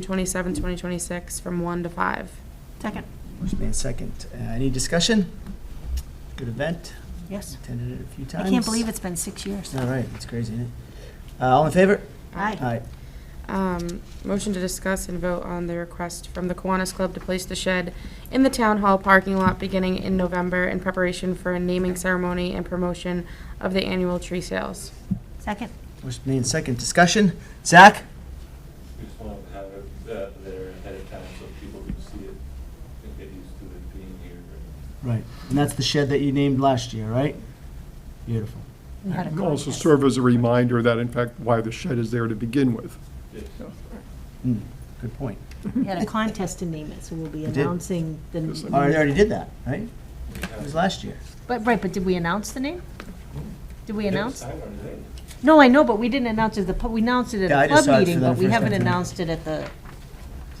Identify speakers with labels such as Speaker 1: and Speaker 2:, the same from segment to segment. Speaker 1: 27, 2026, from 1 to 5.
Speaker 2: Second,
Speaker 3: Motion made second. Uh, Any discussion? Good event,
Speaker 2: yes.
Speaker 3: attended it a few times.
Speaker 2: I can't believe it's been six years.
Speaker 3: All right, it's crazy, isn't it? Uh, All in favor?
Speaker 2: Aye.
Speaker 3: Aye.
Speaker 1: Um, Motion to discuss and vote on the request from the Kiwanis Club to place the shed in the Town Hall parking lot beginning in November in preparation for a naming ceremony and promotion of the annual tree sales.
Speaker 2: Second,
Speaker 3: Motion made second. Discussion? Zach?
Speaker 4: We just want to have it uh, there ahead of time so people can see it and get used to it being here.
Speaker 3: Right. And that's the shed that you named last year, right? Beautiful.
Speaker 2: we had a
Speaker 5: And
Speaker 2: contest.
Speaker 5: also serve as a reminder that in fact why the shed is there to begin with.
Speaker 4: Yes.
Speaker 3: Mm, Good point.
Speaker 2: We had a contest to name it, so we'll be
Speaker 3: did.
Speaker 2: announcing the.
Speaker 5: Yes, I
Speaker 3: All right, I already did that, right? It was last year.
Speaker 2: But, right, but did we announce the name? Did we announce?
Speaker 4: I don't know.
Speaker 2: No, I know, but we didn't announce it, at the, pub- we announced it
Speaker 3: Yeah, I
Speaker 2: at the
Speaker 3: just saw
Speaker 2: club
Speaker 3: it for
Speaker 2: meeting,
Speaker 3: the
Speaker 2: but we
Speaker 3: first
Speaker 2: haven't
Speaker 3: time.
Speaker 2: announced it at the,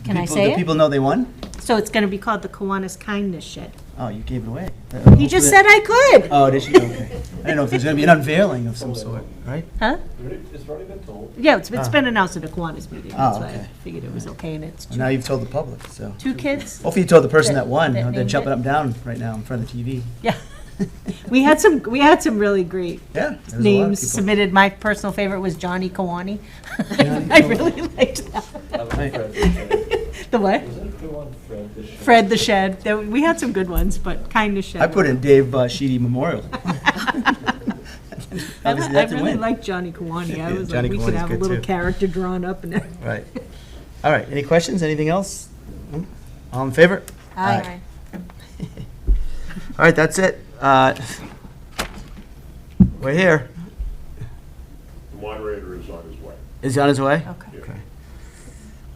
Speaker 2: can I
Speaker 3: People-
Speaker 2: say
Speaker 3: Do
Speaker 2: it?
Speaker 3: people know they won?
Speaker 2: So it's gonna be called the Kiwanis Kindness Shed.
Speaker 3: Oh, you gave it away.
Speaker 2: You just said I could,
Speaker 3: Oh, did you? Okay. I didn't know if there's going to be an unveiling of some sort, right?
Speaker 2: huh?
Speaker 4: It's already been told.
Speaker 2: Yeah, it's, it's
Speaker 3: Ah.
Speaker 2: been announced at the Kiwanis meeting, that's
Speaker 3: Oh,
Speaker 2: why I
Speaker 3: okay.
Speaker 2: figured it was okay, and it's
Speaker 3: Well,
Speaker 2: two,
Speaker 3: Now you've told the public, so.
Speaker 2: two kids.
Speaker 3: Hopefully you told the person
Speaker 2: That-
Speaker 3: that won.
Speaker 2: that
Speaker 3: They're
Speaker 2: named
Speaker 3: jumping
Speaker 2: it.
Speaker 3: up and down right now in front of the TV.
Speaker 2: Yeah. We had some, we had some really great
Speaker 3: Yeah. there's a lot of
Speaker 2: names
Speaker 3: people.
Speaker 2: submitted. My personal favorite was Johnny Kawani. I really liked that.
Speaker 4: I was Fred the Shed.
Speaker 2: The what?
Speaker 4: Wasn't it the one Fred the Shed?
Speaker 2: Fred the Shed. There- We had some good ones, but Kind of Shed.
Speaker 3: I put in Dave uh, Sheedy Memorial.
Speaker 2: I
Speaker 3: Obviously, that's a
Speaker 2: really
Speaker 3: win.
Speaker 2: liked Johnny Kawani. I
Speaker 3: Yeah,
Speaker 2: was like,
Speaker 3: Johnny
Speaker 2: we could
Speaker 3: Kawani's
Speaker 2: have a
Speaker 3: good,
Speaker 2: little
Speaker 3: too.
Speaker 2: character drawn up and everything.
Speaker 3: Right. All right, any questions, anything else? No? All in favor? Aye. All right, that's it. Uh, We're here.
Speaker 6: The moderator is on his way.
Speaker 3: Is he on his way?
Speaker 2: Okay.
Speaker 3: Okay.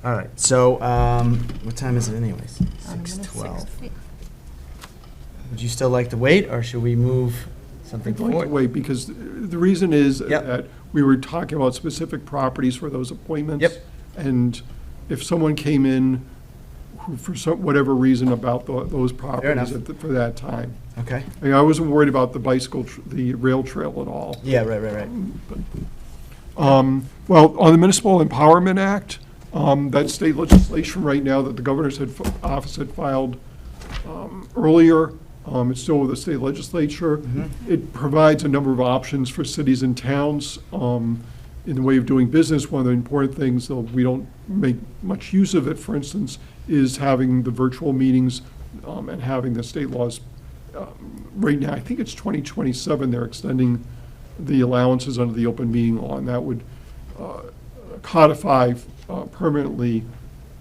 Speaker 3: All right, so um, what time is it anyways? Six twelve. Would you still like to wait, or should we move something
Speaker 5: I'd like to
Speaker 3: forward?
Speaker 5: wait, because the reason is
Speaker 3: Yep.
Speaker 5: that we were talking about specific properties for those appointments.
Speaker 3: Yep.
Speaker 5: And if someone came in who, for some, whatever reason about tho- those
Speaker 3: enough.
Speaker 5: properties at the- for that time.
Speaker 3: Okay.
Speaker 5: I mean, I wasn't worried about the bicycle, tr- the rail trail at all.
Speaker 3: Yeah, right, right, right.
Speaker 5: Um, Well, on the Municipal Empowerment Act, um, that state legislation right now that the governor's had, office had filed um, earlier, um, it's still with the state legislature. It provides a number of options for cities and towns um, in the way of doing business. One of the important things, though we don't make much use of it, for instance, is having the virtual meetings um, and having the state laws right now, I think it's 2027, they're extending the allowances under the open meeting law, and that would uh, codify uh, permanently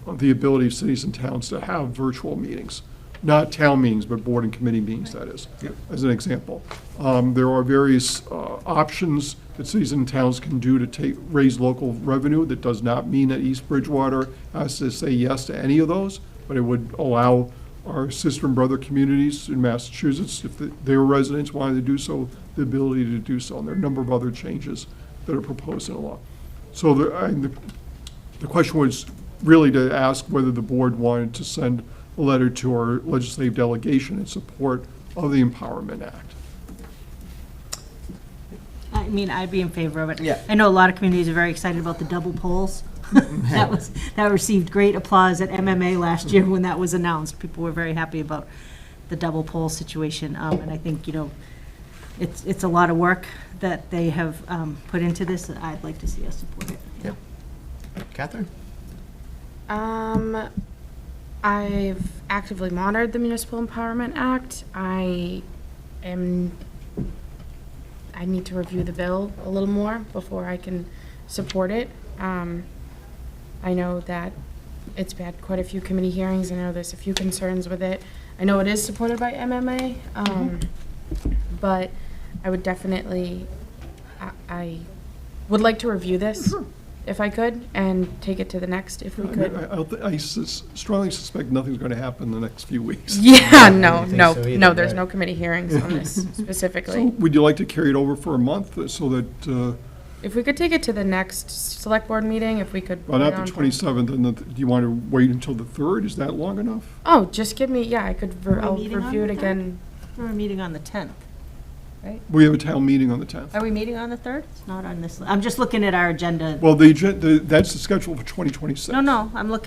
Speaker 5: the ability of cities and towns to have virtual meetings, not town meetings, but board and committee meetings, that is, as an example. Um, There are various uh, options that cities and towns can do to take, raise local revenue. That does not mean that East Bridgewater has to say yes to any of those, but it would allow our sister and brother communities in Massachusetts, if the- their residents wanted to do so, the ability to do so. And there are a number of other changes that are proposed in the law. So the, I, the the question was really to ask whether the board wanted to send a letter to our legislative delegation in support of the Empowerment Act.
Speaker 2: I mean, I'd be in favor of it.
Speaker 3: Yeah.
Speaker 2: I know a lot of communities are very excited about the double poles. That was, that received great applause at MMA last year when that was announced. People were very happy about the double pole situation. Um, And I think, you know, it's, it's a lot of work that they have um, put into this. I'd like to see us support it.
Speaker 3: Yep. Catherine?
Speaker 1: Um, I've actively monitored the Municipal Empowerment Act. I am, I need to review the bill a little more before I can support it. Um, I know that it's had quite a few committee hearings, I know there's a few concerns with it. I know it is supported by MMA, um,
Speaker 5: Mm-hmm.
Speaker 1: but I would definitely, I, I would like to review this, if I could, and take it to the next, if we
Speaker 5: Mm-hmm. I mean,
Speaker 1: could.
Speaker 5: I- I don't thi- I sus- strongly suspect nothing's going to happen in the next few weeks.
Speaker 1: Yeah,
Speaker 3: I
Speaker 1: no,
Speaker 3: don't think
Speaker 1: no,
Speaker 3: so either,
Speaker 1: no, there's
Speaker 3: right.
Speaker 1: no committee hearings on this
Speaker 5: So
Speaker 1: specifically.
Speaker 5: would you like to carry it over for a month uh, so that, uh,
Speaker 1: If we could take it to the next select board meeting, if we could.
Speaker 5: well,
Speaker 1: put it
Speaker 5: not
Speaker 1: on
Speaker 5: the
Speaker 1: for-
Speaker 5: 27th, and the- do you want to wait until the 3rd? Is that long enough?
Speaker 1: Oh, just give me, yeah, I could, re-
Speaker 2: we
Speaker 1: I'll
Speaker 2: meeting on
Speaker 1: review it
Speaker 2: the
Speaker 1: again.
Speaker 2: We're meeting on the 10th.
Speaker 5: We have a town meeting on the 10th.
Speaker 2: Are we meeting on the 3rd? It's not on this, I'm just looking at our agenda.
Speaker 5: Well, the, agen- the- that's the schedule for 2026.
Speaker 2: No, no, I'm looking